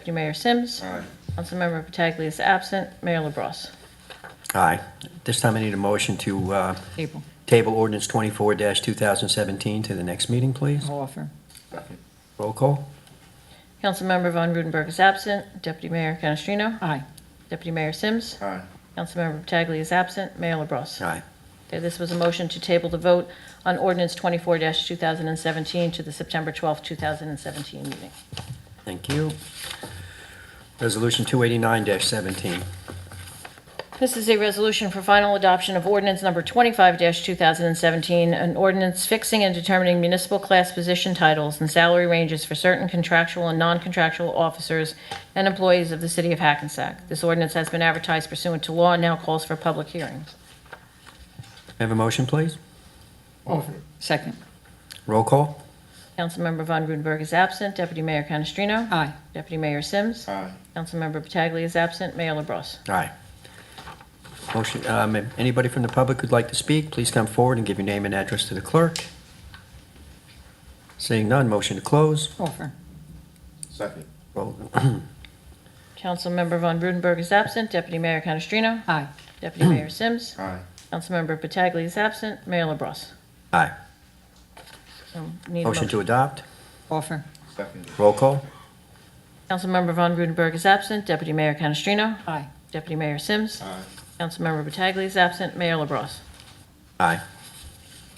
Deputy Mayor Sims. Aye. Councilmember Pataglia is absent. Mayor LaBrus. Aye. This time I need a motion to uh, Table, table ordinance 24-2017 to the next meeting, please. I'll offer. Roll call. Councilmember Von Rudenberg is absent. Deputy Mayor Canestrino. Aye. Deputy Mayor Sims. Aye. Councilmember Pataglia is absent. Mayor LaBrus. Aye. Okay, This was a motion to table the vote on ordinance 24-2017 to the September 12, 2017 meeting. Thank you. Resolution 289-17. This is a resolution for final adoption of ordinance number 25-2017, an ordinance fixing and determining municipal class position titles and salary ranges for certain contractual and non-contractual officers and employees of the city of Hackensack. This ordinance has been advertised pursuant to law and now calls for public hearing. May I Have a motion, please? Offer. Second. Roll call. Councilmember Von Rudenberg is absent. Deputy Mayor Canestrino? Aye. Deputy Mayor Sims? Aye. Councilmember Pataglia is absent. Mayor LaBrus. Aye. Motion, um, if anybody from the public who'd like to speak, please come forward and give your name and address to the clerk. Seeing none, motion to close. Offer. Second. Roll- Councilmember Von Rudenberg is absent. Deputy Mayor Canestrino? Aye. Deputy Mayor Sims? Aye. Councilmember Pataglia is absent. Mayor LaBrus. Aye. Um, Need a Motion to motion. adopt. Offer. Second. Roll call. Councilmember Von Rudenberg is absent. Deputy Mayor Canestrino. Aye. Deputy Mayor Sims. Aye. Councilmember Pataglia is absent. Mayor LaBrus. Aye.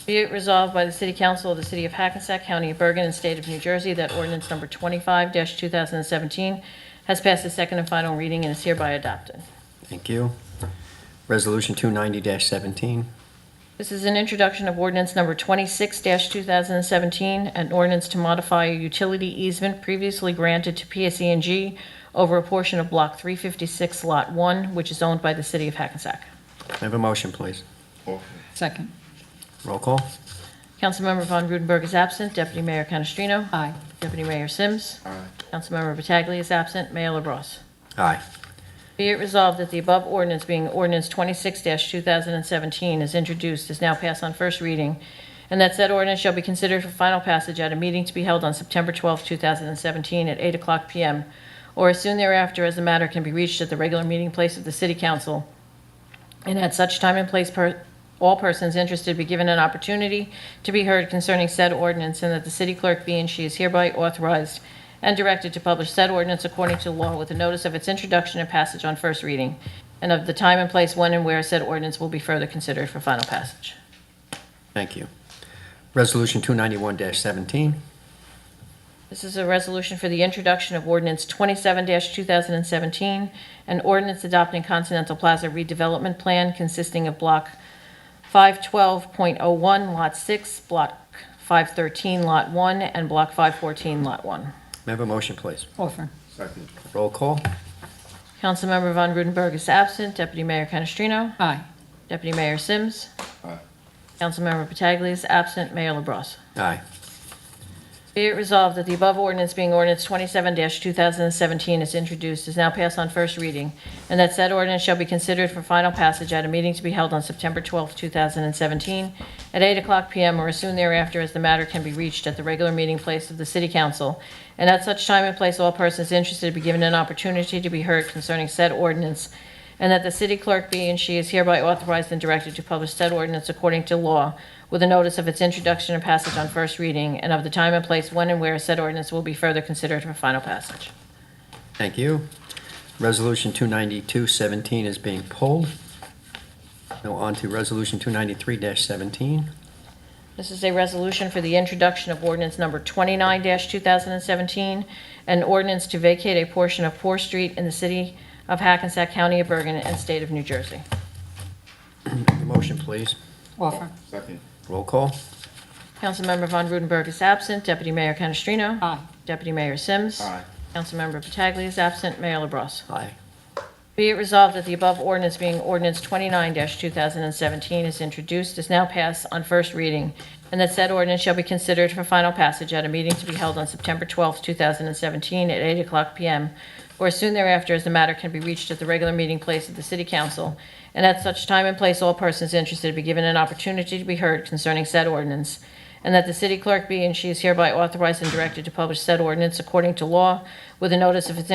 Be it resolved by the City Council of the City of Hackensack, County of Bergen, and State of New Jersey that ordinance number 25-2017 has passed its second and final reading and is hereby adopted. Thank you. Resolution 290-17. This is an introduction of ordinance number 26-2017, an ordinance to modify a utility easement previously granted to PSE&G over a portion of Block 356, Lot 1, which is owned by the City of Hackensack. May I Have a motion, please. Orford. Second. Roll call. Councilmember Von Rudenberg is absent. Deputy Mayor Canestrino? Aye. Deputy Mayor Sims? Aye. Councilmember Pataglia is absent. Mayor LaBrus. Aye. Be it resolved that the above ordinance, being ordinance 26-2017, is introduced, is now passed on first reading, and that said ordinance shall be considered for final passage at a meeting to be held on September 12, 2017, at 8 o'clock p.m., or as soon thereafter as the matter can be reached at the regular meeting place of the City Council, and at such time and place, per- all persons interested be given an opportunity to be heard concerning said ordinance, and that the city clerk be and she is hereby authorized and directed to publish said ordinance according to law with a notice of its introduction and passage on first reading, and of the time and place when and where said ordinance will be further considered for final passage. Thank you. Resolution 291-17. This is a resolution for the introduction of ordinance 27-2017, an ordinance adopting Continental Plaza redevelopment plan consisting of block 512.01, lot 6, block 513, lot 1, and block 514, lot 1. May I Have a motion, please. Offer. Second. Roll call. Councilmember Von Rudenberg is absent. Deputy Mayor Canestrino? Aye. Deputy Mayor Sims? Aye. Councilmember Pataglia is absent. Mayor LaBrus. Aye. Be it resolved that the above ordinance being ordinance 27-2017 is introduced, is now passed on first reading, and that said ordinance shall be considered for final passage at a meeting to be held on September 12, 2017, at 8 o'clock p.m. or as soon thereafter as the matter can be reached at the regular meeting place of the City Council, and at such time and place all persons interested be given an opportunity to be heard concerning said ordinance, and that the city clerk be and she is hereby authorized and directed to publish said ordinance according to law with a notice of its introduction and passage on first reading and of the time and place when and where said ordinance will be further considered for final passage. Thank you. Resolution 292-17 is being pulled. Now on to Resolution 293-17. This is a resolution for the introduction of ordinance number 29-2017, an ordinance to vacate a portion of Poor Street in the city of Hackensack County of Bergen and state of New Jersey. May I Have a motion, please. Offer. Second. Roll call. Councilmember Von Rudenberg is absent. Deputy Mayor Canestrino? Aye. Deputy Mayor Sims? Aye. Councilmember Pataglia is absent. Mayor LaBrus. Aye. Be it resolved that the above ordinance being ordinance 29-2017 is introduced, is now passed on first reading, and that said ordinance shall be considered for final passage at a meeting to be held on September 12, 2017, at 8 o'clock p.m., or as soon thereafter as the matter can be reached at the regular meeting place of the City Council, and at such time and place all persons interested be given an opportunity to be heard concerning said ordinance, and that the city clerk be and she is hereby authorized and directed to publish said ordinance according to law with a notice of its